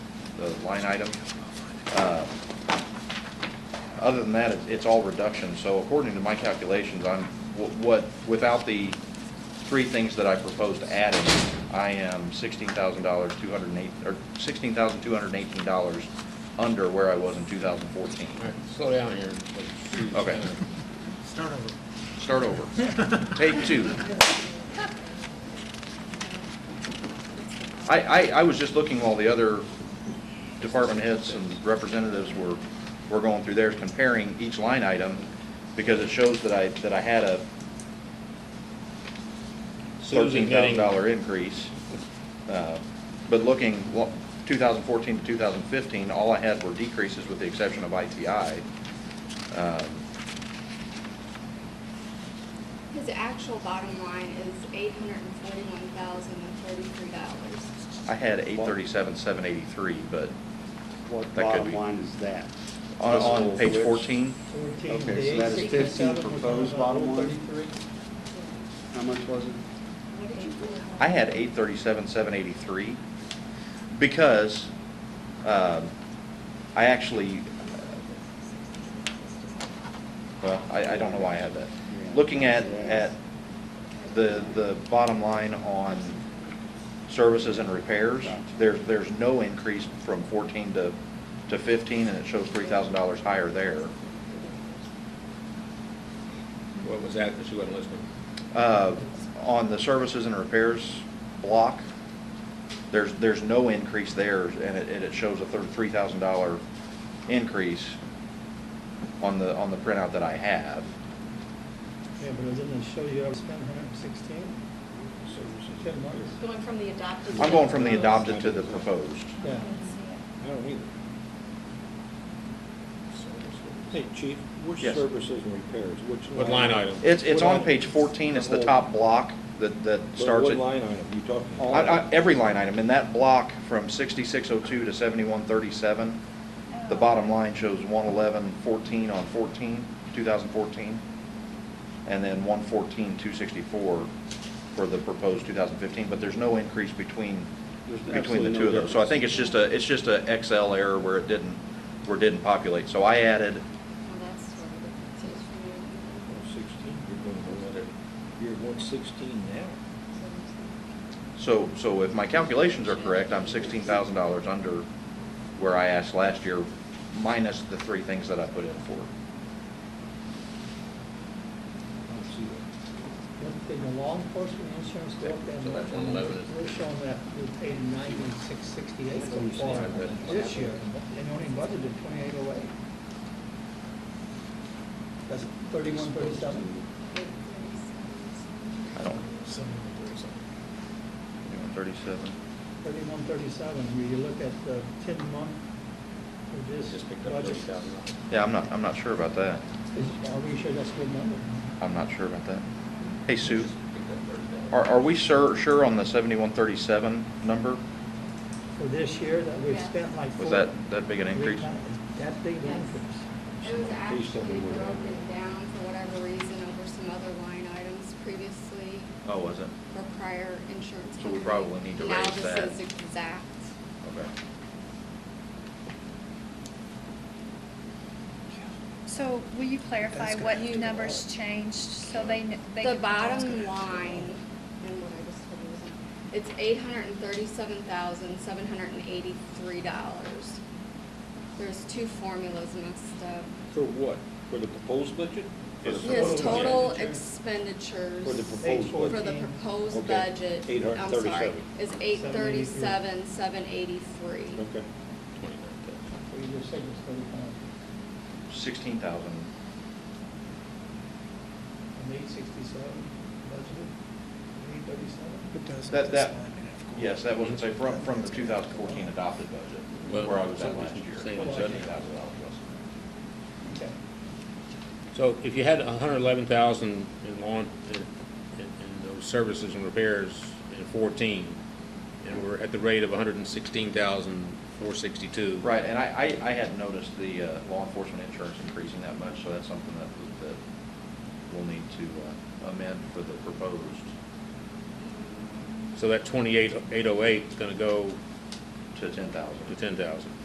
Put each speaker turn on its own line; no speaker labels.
the line item. Uh, Other than that, it's- it's all reduction, so according to my calculations, I'm, wh- what, without the three things that I proposed adding, I am sixteen thousand dollars, two hundred and eight, or sixteen thousand, two hundred and eighteen dollars under where I was in two thousand fourteen.
All right, slow down here. let's see.
Okay.
Start over.
Start over. Take two. I, I, I was just looking while the other department heads and representatives were, were going through theirs, comparing each line item, because it shows that I, that I had a
Susan
thirteen
getting-
thousand dollar increase. Uh, But looking, two thousand fourteen to two thousand fifteen, all I had were decreases with the exception of ITI. Um,
His actual bottom line is eight hundred and forty-one thousand and thirty-three dollars.
I had eight thirty-seven, seven eighty-three, but
What
That could
bottom
be.
line is that?
on,
This
on
whole
page
glitch?
fourteen,
Fourteen
Okay, so that is
days,
fifteen
67,
proposed bottom line?
33.
How much was it?
What did you
I had eight thirty-seven, seven eighty-three, because, um, I actually, well, I, I don't know why I had that. Looking at, at the, the bottom line on services and repairs, there, there's no increase from fourteen to, to fifteen, and it shows three thousand dollars higher there.
What was that? She wasn't listening.
Uh, On the services and repairs block, there's, there's no increase there, and it, and it shows a thirty-three thousand dollar increase on the, on the printout that I have.
Yeah, but it didn't show you I was spending hundred and sixteen? Ten months?
Going from the adopted.
I'm going from the adopted to the proposed.
Yeah.
I don't either.
Hey, Chief, which
Yes.
services and repairs, which?
What line item?
It's, it's
What
on
line-
page fourteen, it's the
whole-
top block that, that
But
starts
What
at.
line item you talking?
I- I- Every line item, in that block from sixty-six oh two to seventy-one thirty-seven, the bottom line shows one eleven fourteen on 14, 2014, and then one fourteen two sixty-four for the proposed two thousand fifteen, but there's no increase between,
There's
between the
absolutely
two of
no
those. So I
difference.
think it's just a, it's just a Excel error where it didn't, where it didn't populate. So I added,
Well, that's sort of the
One sixteen, you're going to go at it, you're at one sixteen now.
so, so if my calculations are correct, I'm sixteen thousand dollars under where I asked last year, minus the three things that I put in for.
I don't see that.
What did the law enforcement insurance go up that
So that's
much?
111.
We're showing that we paid ninety-six sixty-eight so far this year, and only budgeted twenty-eight oh eight. That's thirty-one thirty-seven?
I don't, you know, thirty-seven.
Thirty-one thirty-seven, when you look at the ten-month for this
Just picked up
budget.
thirty thousand dollars.
Yeah, I'm not, I'm not sure about that.
is- Are we sure that's a good number?
I'm not sure about that. Hey, Sue,
Picked up thirty thousand.
are, are we sure, sure on the seventy-one thirty-seven number?
For this year that we've
Yeah.
spent like.
Was
four-
that, that big an increase?
Is That big an
Yes.
increase.
It was
Please tell me
actually
where that-
broken down for whatever reason over some other line items previously
Oh, was it?
for prior insurance.
So we
company.
probably need to raise
Now
that.
this is exact.
Okay.
So will you clarify
That's
what
gonna-
numbers changed so they, kn- they?
The
can-
bottom line, and what I just told you was- it's eight hundred and thirty-seven thousand, seven hundred and eighty-three dollars. There's two formulas mixed up.
For what? For the proposed budget?
For the
His
proposed
total
budget.
expenditures.
For the proposed
for
budget?
the
14.
proposed
Okay,
budget.
837.
I'm sorry, is eight thirty-seven, seven eighty-three.
Okay.
So you just said it's thirty-five,
Sixteen thousand.
and eight sixty-seven budgeted, eight thirty-seven.
That, that, yes, that wasn't, say, from, from the two thousand fourteen adopted budget,
Well,
where I was at
something's
last year.
saying
what $16,000
seventy.
was.
Okay.
So if you had a hundred eleven thousand in lawn, in, in- in those services and repairs in fourteen, and we're at the rate of a hundred and sixteen thousand, four sixty-two.
Right, and I, I, I hadn't noticed the uh, law enforcement insurance increasing that much, so that's something that, that we'll need to uh, amend for the proposed.
So that twenty-eight, eight oh eight is gonna go
to ten thousand.
to ten thousand.